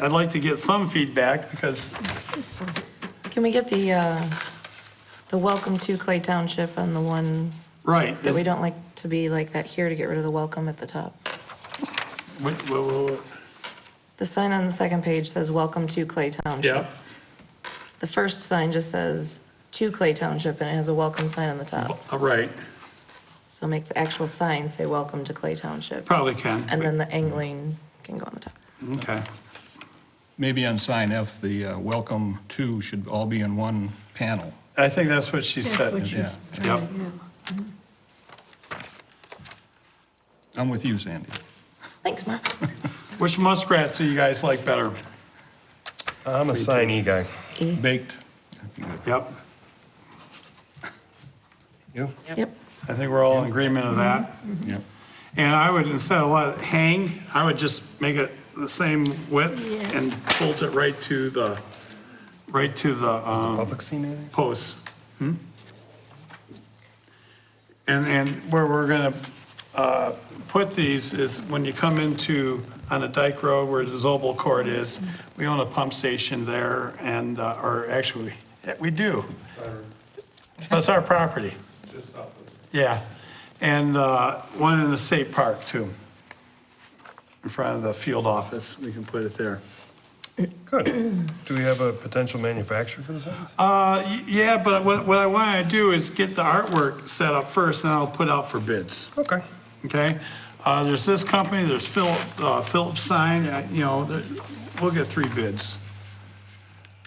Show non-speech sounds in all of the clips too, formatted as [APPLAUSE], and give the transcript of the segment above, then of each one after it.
I'd like to get some feedback because Can we get the, uh, the welcome to Clay Township on the one Right. that we don't like to be like that here to get rid of the welcome at the top? Wait, wait, wait, wait. The sign on the second page says, "Welcome to Clay Township." Yeah, The first sign just says, "To Clay Township," and it has a welcome sign on the top. all Uh, right, So make the actual sign say, "Welcome to Clay Township." probably can. And then the angling can go on the top. Okay, Maybe on sign F, the uh, welcome to should all be in one panel. I think that's what she That's what said. she's Yeah. trying Yep. to do. I'm with you, Sandy. Thanks, Mark. Which muskrat do you guys like better? I'm a signee guy. Baked. Yep, You? Yep. I think we're all in agreement of that. Mm-hmm. Yep. And I would, instead of let it hang, I would just make it the same width Yeah. and bolt it right to the, right to the, um, Public scene, anything? posts. Hmm? And, and where we're gonna, uh, put these is when you come into, on a dike road where the Zobel Court is, we own a pump station there and, uh, or actually, yeah, we do. That's our property. Yeah, and, uh, one in the state park too. In front of the field office, we can put it there. Good. Do we have a potential manufacturer for the signs? Uh, y- yeah, but what, what I want to do is get the artwork set up first, and I'll put out for bids, Okay. okay? Uh, there's this company, there's Philip, uh, Phillips Sign, uh, you know, there- we'll get three bids.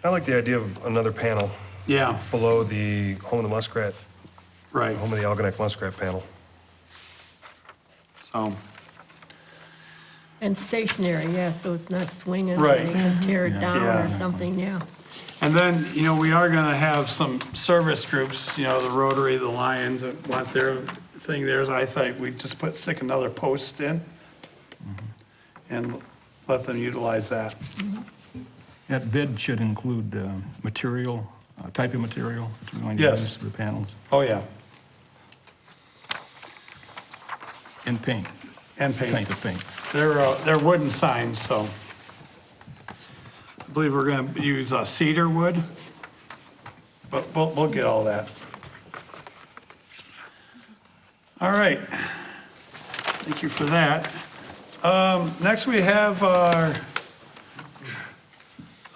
I like the idea of another panel Yeah, below the home of the muskrat, right, home of the algonac muskrat panel. so, And stationary, yeah, so it's not swinging. Right. You can tear it down or Yeah. something, yeah. and then, you know, we are gonna have some service groups, you know, the Rotary, the Lions, that want their thing theirs, I think we just put, stick another post in and let them utilize that. That bid should include uh, material, uh, type of material that you're going to Yes. use for the panels, Oh, yeah, and paint, and paint. type of paint. They're, uh, they're wooden signs, so. I believe we're going to use uh, cedar wood, but we'll, we'll get all that. All right. Thank you for that. Um, Next, we have our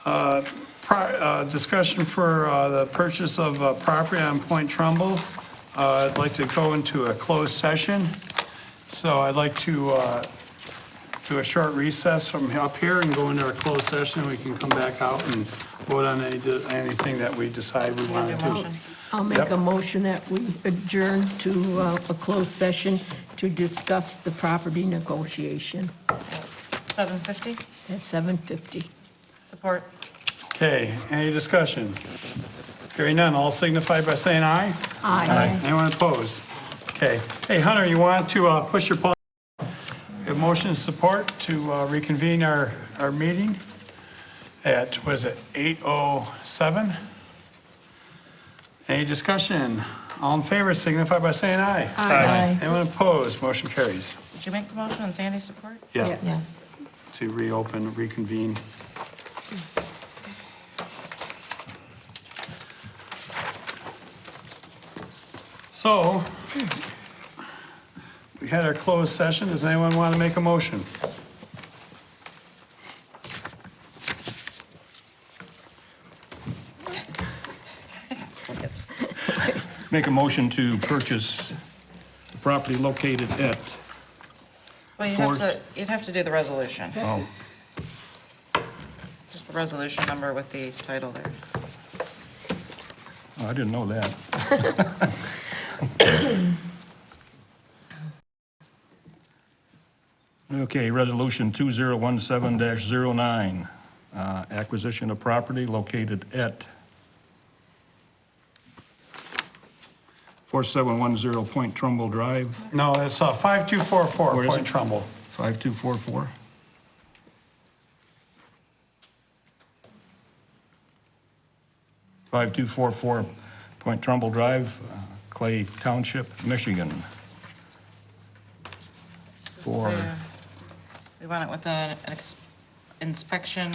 uh, pro- uh, discussion for uh, the purchase of uh, property on Point Trumbull. Uh, I'd like to go into a closed session, so I'd like to uh, do a short recess from up here and go into our closed session, and we can come back out and vote on any, anything that we decide we want to do. I'll make a motion that we adjourn to uh, a closed session to discuss the property negotiation 750, at 7:50. support. Okay, any discussion? Hearing none, all signify by saying aye. Aye. Anyone opposed? Okay. Hey, Hunter, you want to uh, push your pause? A motion and support to uh, reconvene our, our meeting at, was it 8:07? Any discussion? All in favor signify by saying aye. Aye. Anyone opposed? Motion carries. Did you make the motion and Sandy support? Yeah, Yeah. Yes. to reopen, reconvene. So, we had our closed session. Does anyone want to make a motion? Make a motion to purchase the property located at, Well, you'd have Support. to, you'd have to do the resolution, oh, just the resolution number with the title there. Oh, I didn't know that. [LAUGHS] Okay, resolution 2017-09, uh, acquisition of property located at 4710 Point Trumbull Drive, No, it's uh, 5244 Where is Point it? Trumbull. 5244. Five two four four Point Trumbull Drive, uh, Clay Township, Michigan. For Yeah. We want it with an an ex- inspection